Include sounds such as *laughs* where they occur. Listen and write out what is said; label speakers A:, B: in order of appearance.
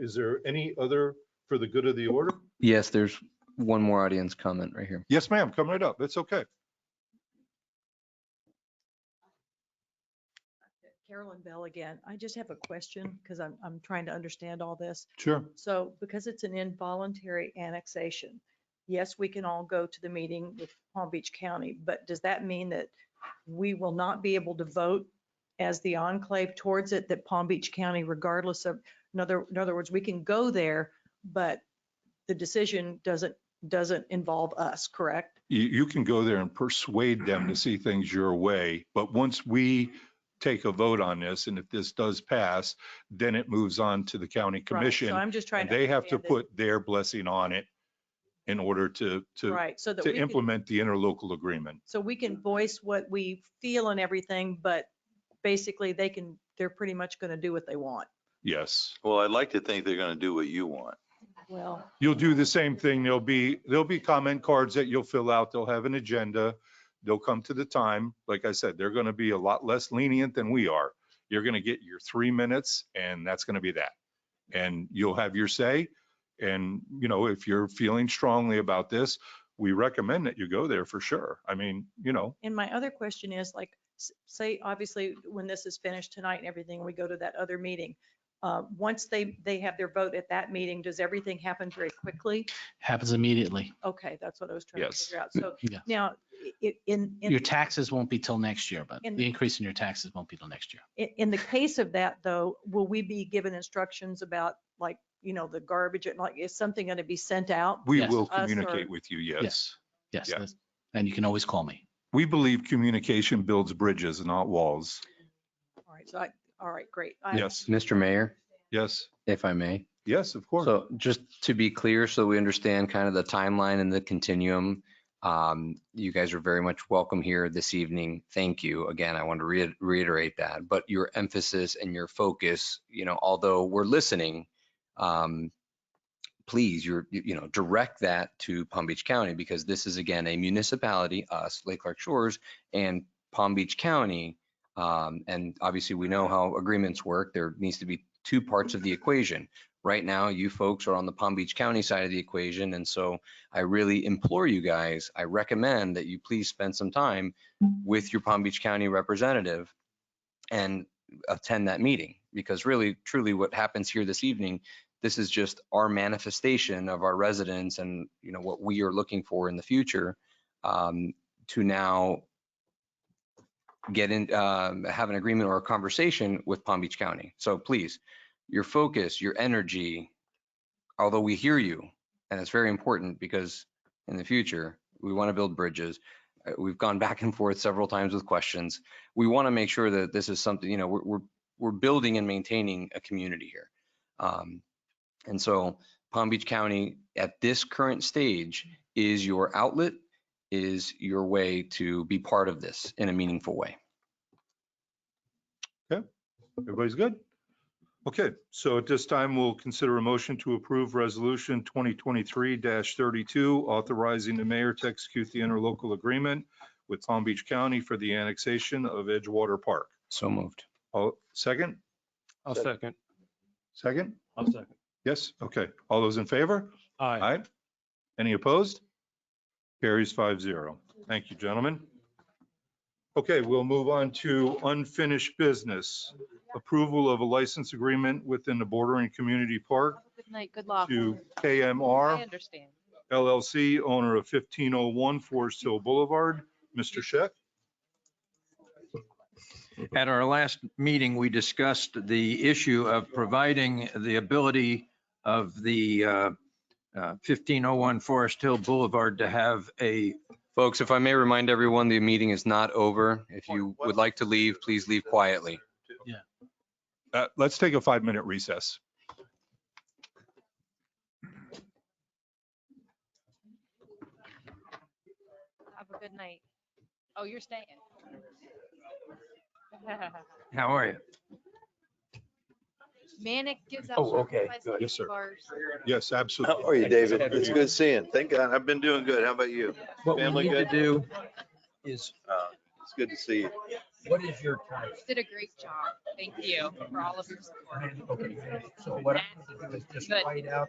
A: Is there any other for the good of the order?
B: Yes, there's one more audience comment right here.
A: Yes, ma'am, come right up. It's okay.
C: Carolyn Bell again. I just have a question because I'm, I'm trying to understand all this.
A: Sure.
C: So because it's an involuntary annexation, yes, we can all go to the meeting with Palm Beach County, but does that mean that we will not be able to vote as the enclave towards it, that Palm Beach County regardless of, in other, in other words, we can go there, but the decision doesn't, doesn't involve us, correct?
A: You, you can go there and persuade them to see things your way, but once we take a vote on this, and if this does pass, then it moves on to the county
C: Right, So
A: commission.
C: I'm just trying
A: And
C: to.
A: they have to
C: understand
A: put their blessing on it in order to,
C: it.
A: to,
C: Right, so that we
A: to
C: can.
A: implement the interlocal agreement.
C: So we can voice what we feel and everything, but basically they can, they're pretty much going to do what they want.
A: Yes.
D: Well, I'd like to think they're going to do what you want.
C: Well,
A: You'll do the same thing. There'll be, there'll be comment cards that you'll fill out. They'll have an agenda. They'll come to the time. Like I said, they're going to be a lot less lenient than we are. You're going to get your three minutes and that's going to be that. And you'll have your say. And, you know, if you're feeling strongly about this, we recommend that you go there for sure. I mean, you know,
C: and my other question is like, s- say, obviously, when this is finished tonight and everything, we go to that other meeting. Uh, Once they, they have their vote at that meeting, does everything happen very quickly?
E: happens immediately.
C: Okay, that's what I was trying to
A: Yes.
C: figure out. So
E: Yeah.
C: now, i- in, in.
E: Your taxes won't be till next year, but
C: And-
E: the increase in your taxes won't be till next year.
C: In, in the case of that, though, will we be given instructions about like, you know, the garbage and like, is something going to be sent out?
A: we
E: Yes.
A: will
C: Us or-
A: communicate with you. Yes.
E: Yes,
A: Yeah.
E: that's- and you can always call me.
A: We believe communication builds bridges, not walls.
C: All right, so I, all right, great. I-
A: Yes.
B: Mr. Mayor,
A: Yes.
B: if I may.
A: Yes, of course.
B: So just to be clear, so we understand kind of the timeline and the continuum, um, you guys are very much welcome here this evening. Thank you. Again, I want to rea- reiterate that, but your emphasis and your focus, you know, although we're listening, um, please, you're, you you know, direct that to Palm Beach County because this is again, a municipality, us, Lake Clark Shores and Palm Beach County. Um, and obviously we know how agreements work. There needs to be two parts of the equation right now you folks are on the Palm Beach County side of the equation. And so I really implore you guys, I recommend that you please spend some time with your Palm Beach County representative and attend that meeting. Because really, truly what happens here this evening, this is just our manifestation of our residents and, you know, what we are looking for in the future um, to now get in, um, have an agreement or a conversation with Palm Beach County. So please, your focus, your energy, although we hear you, and it's very important because in the future, we want to build bridges. Uh, We've gone *laughs* back and forth several times with questions. We want to make sure that this is something, you know, we're, we're, we're building and maintaining a community here. Um, And so Palm Beach County at this current stage is your outlet, is your way to be part of this in a meaningful way.
A: Everybody's good? Okay, so at this time, we'll consider a motion to approve Resolution 2023-32, authorizing the mayor to execute the interlocal agreement with Palm Beach County for the annexation of Edgewater Park.
B: So moved.
A: All, second?
F: I'll second.
A: Second?
F: I'll second.
A: Yes, okay. All those in favor?
F: Aye.
A: Aye. Any opposed? Carries five zero. Thank you, gentlemen. Okay, we'll move on to unfinished business. Approval of a license agreement within the bordering community park
G: Good night, good luck.
A: to
G: I
A: KMR
G: understand.
A: LLC, owner of 1501 Forest Hill Boulevard. Mr. Scheck?
H: At our last meeting, we discussed the issue of providing the ability of the uh, uh, 1501 Forest Hill Boulevard to have a,
B: Folks, if I may remind everyone, the meeting is not over. If you would like to leave, please leave quietly.
A: Uh, Let's take a five-minute recess.
G: Have a good night. Oh, you're staying. *laughs*
H: how are you?
G: Manic gives out.
H: Oh, okay,
G: certified
H: good.
A: Yes, sir.
G: bars.
A: Yes, absolutely.
D: are you, David? It's good seeing. Thank God. I've been doing good. How about you?
H: What we
D: Family
H: need to
D: good?
H: do is
D: Uh, It's good to see you.
H: What is your time?
G: did a great job. Thank you for all of your support.
H: Okay, So what I'm gonna do is just
G: Good.
H: white out